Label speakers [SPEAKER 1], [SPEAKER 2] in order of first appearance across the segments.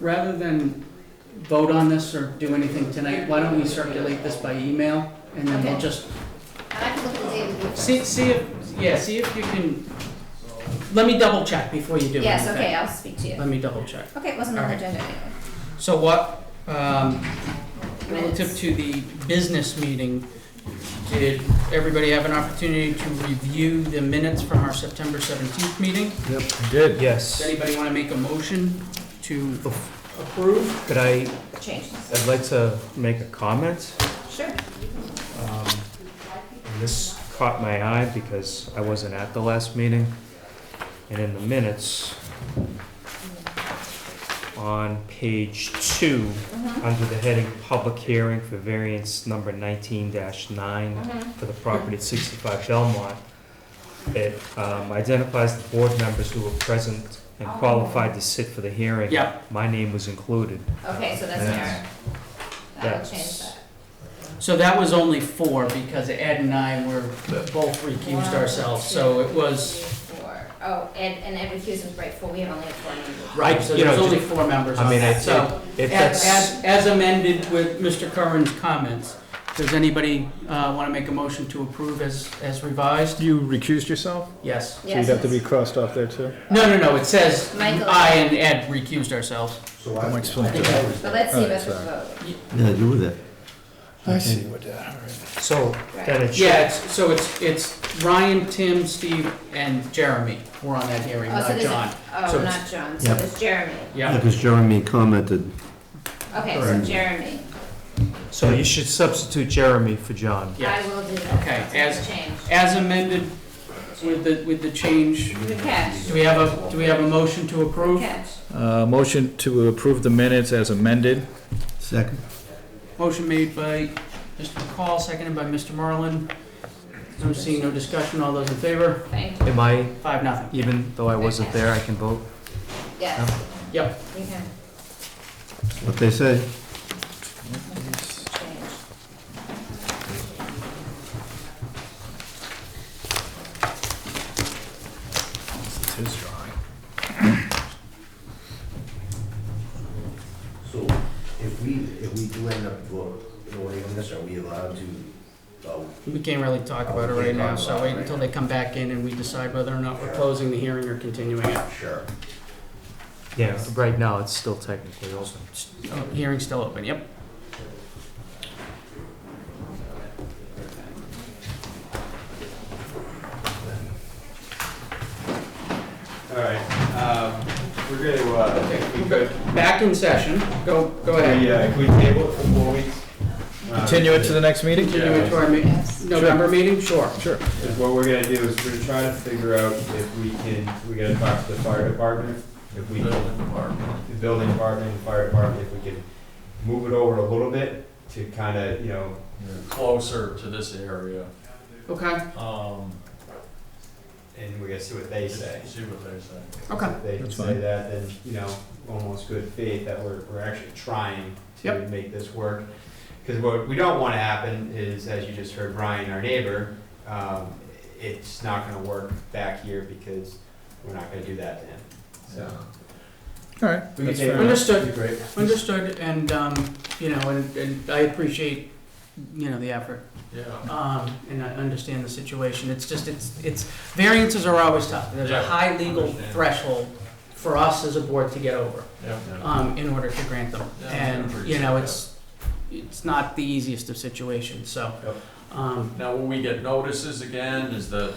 [SPEAKER 1] rather than vote on this or do anything tonight, why don't we circulate this by email? And then we'll
[SPEAKER 2] Okay.
[SPEAKER 1] just,
[SPEAKER 2] And I can look at the data with you first.
[SPEAKER 1] see, see if, yeah, see if you can, let me double check before you do anything.
[SPEAKER 2] Yes, okay, I'll speak to you.
[SPEAKER 1] Let me double check.
[SPEAKER 2] Okay, it wasn't on the
[SPEAKER 1] Alright.
[SPEAKER 2] agenda anyway.
[SPEAKER 1] So what, um, relative
[SPEAKER 2] Minutes.
[SPEAKER 1] to the business meeting, did everybody have an opportunity to review the minutes from our September 17th meeting?
[SPEAKER 3] Did.
[SPEAKER 1] Does
[SPEAKER 3] Yes.
[SPEAKER 1] anybody want to make a motion to approve?
[SPEAKER 3] Could I,
[SPEAKER 2] Changes.
[SPEAKER 3] I'd like to make a comment.
[SPEAKER 2] Sure.
[SPEAKER 3] Um, and This caught my eye because I wasn't at the last meeting. And in the minutes, on page two,
[SPEAKER 1] Mm-hmm.
[SPEAKER 2] Mhm,
[SPEAKER 3] under the heading Public Hearing for Variance Number 19-9,
[SPEAKER 2] mhm.
[SPEAKER 3] for the property at 65 Belmont. It um, identifies the board members who were present and qualified to sit for the hearing.
[SPEAKER 1] Yeah.
[SPEAKER 3] My name was included.
[SPEAKER 2] Okay, so that's an error. That'll change
[SPEAKER 3] That's-
[SPEAKER 2] that.
[SPEAKER 1] So that was only four because Ed and I were both recused ourselves, so it was,
[SPEAKER 2] Four. Oh, and, and Ed recused was right, four, we have only had four members.
[SPEAKER 1] right, so
[SPEAKER 3] You know,
[SPEAKER 1] there's only four members
[SPEAKER 3] I
[SPEAKER 1] on
[SPEAKER 3] mean, I
[SPEAKER 1] that, so.
[SPEAKER 3] think if
[SPEAKER 1] As,
[SPEAKER 3] that's,
[SPEAKER 1] as- as amended with Mr. Curran's comments, does anybody want to make a motion to approve as, as revised?
[SPEAKER 4] You recused yourself?
[SPEAKER 1] Yes.
[SPEAKER 4] So you'd have to be crossed off there too?
[SPEAKER 1] No, no, no, it says
[SPEAKER 2] Michael.
[SPEAKER 1] I and Ed recused ourselves.
[SPEAKER 5] So
[SPEAKER 4] That
[SPEAKER 5] I,
[SPEAKER 4] might explain
[SPEAKER 5] I
[SPEAKER 1] it.
[SPEAKER 5] think I was
[SPEAKER 2] But
[SPEAKER 5] there.
[SPEAKER 2] let's see
[SPEAKER 4] Alright,
[SPEAKER 2] what's the
[SPEAKER 4] sorry.
[SPEAKER 2] vote.
[SPEAKER 6] Yeah, do with it.
[SPEAKER 4] I see what that, all right.
[SPEAKER 3] so then it
[SPEAKER 1] Yeah,
[SPEAKER 3] should,
[SPEAKER 1] it's, so it's, it's Ryan, Tim, Steve, and Jeremy were on that hearing,
[SPEAKER 2] Oh, so
[SPEAKER 1] not
[SPEAKER 2] there's a-
[SPEAKER 1] John. So
[SPEAKER 2] Oh,
[SPEAKER 1] it's-
[SPEAKER 2] not John, so
[SPEAKER 6] Yeah.
[SPEAKER 2] there's Jeremy.
[SPEAKER 6] Yeah,
[SPEAKER 1] Yeah,
[SPEAKER 6] because Jeremy commented.
[SPEAKER 2] Okay, so
[SPEAKER 6] Alright.
[SPEAKER 2] Jeremy.
[SPEAKER 3] so you should substitute Jeremy for John.
[SPEAKER 2] I
[SPEAKER 1] yes.
[SPEAKER 2] will do that.
[SPEAKER 1] Okay,
[SPEAKER 2] That's
[SPEAKER 1] as-
[SPEAKER 2] Change.
[SPEAKER 1] As amended with the, with the change,
[SPEAKER 2] Good catch.
[SPEAKER 1] do we have a, do we have a motion to approve?
[SPEAKER 2] Catch.
[SPEAKER 4] Uh, motion to approve the minutes as amended.
[SPEAKER 6] Second.
[SPEAKER 1] Motion made by Mr. McCall, seconded by Mr. Merlin. No seeing, no discussion, all those in favor?
[SPEAKER 2] Thank you.
[SPEAKER 3] Am I,
[SPEAKER 1] Five, nothing.
[SPEAKER 3] even though I wasn't there, I can vote?
[SPEAKER 2] Yes.
[SPEAKER 1] Yep.
[SPEAKER 2] You can
[SPEAKER 6] What they say.
[SPEAKER 2] change.
[SPEAKER 4] It's his drawing.
[SPEAKER 5] So if we, if we do end up vo- voting on this, are we allowed to, uh,
[SPEAKER 1] We can't really talk about it right now, so wait until they come back in and we decide whether or not we're closing the hearing or continuing it.
[SPEAKER 5] sure.
[SPEAKER 3] Yeah, right now, it's still technically open.
[SPEAKER 1] Oh, Hearing's still open, yep.
[SPEAKER 7] All right, um, we're gonna, uh, if we could,
[SPEAKER 1] Back in session, go, go
[SPEAKER 7] we,
[SPEAKER 1] ahead.
[SPEAKER 7] uh, if we table it for four weeks. um,
[SPEAKER 4] Continue it to the next meeting?
[SPEAKER 1] Continue it to our me-
[SPEAKER 2] Yes.
[SPEAKER 1] November meeting, sure.
[SPEAKER 4] Sure.
[SPEAKER 7] Is what we're gonna do is we're gonna try to figure out if we can, we gotta talk to the fire department, if we. Building department. The building department, the fire department, if we can move it over a little bit to kinda, you know,
[SPEAKER 8] closer to this area,
[SPEAKER 1] Okay,
[SPEAKER 8] um,
[SPEAKER 7] and we gotta see what they say.
[SPEAKER 8] see what they say.
[SPEAKER 1] okay.
[SPEAKER 7] If they can
[SPEAKER 4] That's
[SPEAKER 7] say
[SPEAKER 4] fine.
[SPEAKER 7] that, then, you know, almost good faith that we're, we're actually trying to make this work. Because what we don't want to happen is, as you just heard Brian, our neighbor, um, it's not gonna work back here because we're not gonna do that to him, so.
[SPEAKER 4] All right.
[SPEAKER 7] we can
[SPEAKER 4] That's
[SPEAKER 7] take
[SPEAKER 4] fair
[SPEAKER 7] it.
[SPEAKER 4] enough.
[SPEAKER 1] Understood.
[SPEAKER 7] Be great.
[SPEAKER 1] Understood, and, um, you know, and, and I appreciate, you know, the effort.
[SPEAKER 8] Yeah,
[SPEAKER 1] Um, and I understand the situation, it's just, it's, it's, variances are always tough. There's a
[SPEAKER 8] Yeah,
[SPEAKER 1] high legal
[SPEAKER 8] understand.
[SPEAKER 1] threshold for us as a board to get over.
[SPEAKER 8] yeah.
[SPEAKER 1] um, in order to grant them.
[SPEAKER 8] Yeah,
[SPEAKER 1] And,
[SPEAKER 8] I
[SPEAKER 1] you know,
[SPEAKER 8] appreciate
[SPEAKER 1] it's, it's not the easiest of situations, so.
[SPEAKER 7] Yep.
[SPEAKER 1] Um,
[SPEAKER 8] Now, will we get notices again, is the,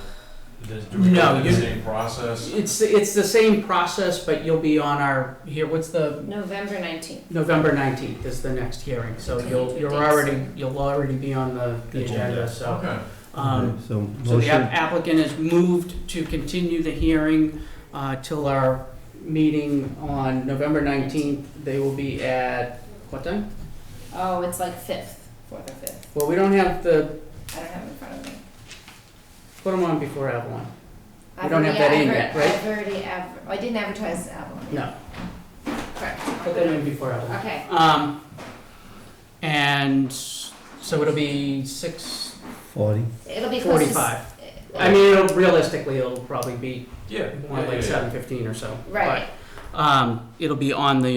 [SPEAKER 8] does, do we
[SPEAKER 1] No,
[SPEAKER 8] go through
[SPEAKER 1] you-
[SPEAKER 8] the same process?
[SPEAKER 1] it's, it's the same process, but you'll be on our, here, what's the,
[SPEAKER 2] November nineteenth.
[SPEAKER 1] November nineteenth is the next hearing, so you'll, you're already, you'll already be on the the
[SPEAKER 7] Good job.
[SPEAKER 1] agenda, so.
[SPEAKER 8] Okay,
[SPEAKER 1] Um,
[SPEAKER 6] So
[SPEAKER 1] so the
[SPEAKER 6] motion,
[SPEAKER 1] app- applicant has moved to continue the hearing, uh, till our meeting on November nineteenth. They will be at, what time?
[SPEAKER 2] Oh, it's like fifth, fourth or fifth.
[SPEAKER 1] Well, we don't have the,
[SPEAKER 2] I don't have it in front of me.
[SPEAKER 1] put them on before Avalon.
[SPEAKER 2] I've
[SPEAKER 1] don't have that
[SPEAKER 2] already-
[SPEAKER 1] in
[SPEAKER 2] I've
[SPEAKER 1] yet,
[SPEAKER 2] already-
[SPEAKER 1] right?
[SPEAKER 2] I've already, adver- oh, I didn't advertise the album.
[SPEAKER 1] No.
[SPEAKER 2] Correct.
[SPEAKER 1] Put them in before Evelyn.
[SPEAKER 2] Okay,
[SPEAKER 1] Um, and so it'll be six
[SPEAKER 6] forty.
[SPEAKER 2] it'll be close to. s-
[SPEAKER 1] forty-five.
[SPEAKER 2] uh,
[SPEAKER 1] I mean, it'll, realistically, it'll probably be
[SPEAKER 8] yeah.
[SPEAKER 1] more
[SPEAKER 8] yeah,
[SPEAKER 1] like
[SPEAKER 8] yeah, yeah.
[SPEAKER 1] seven fifteen or so.
[SPEAKER 2] Right.
[SPEAKER 1] But, um, it'll be on the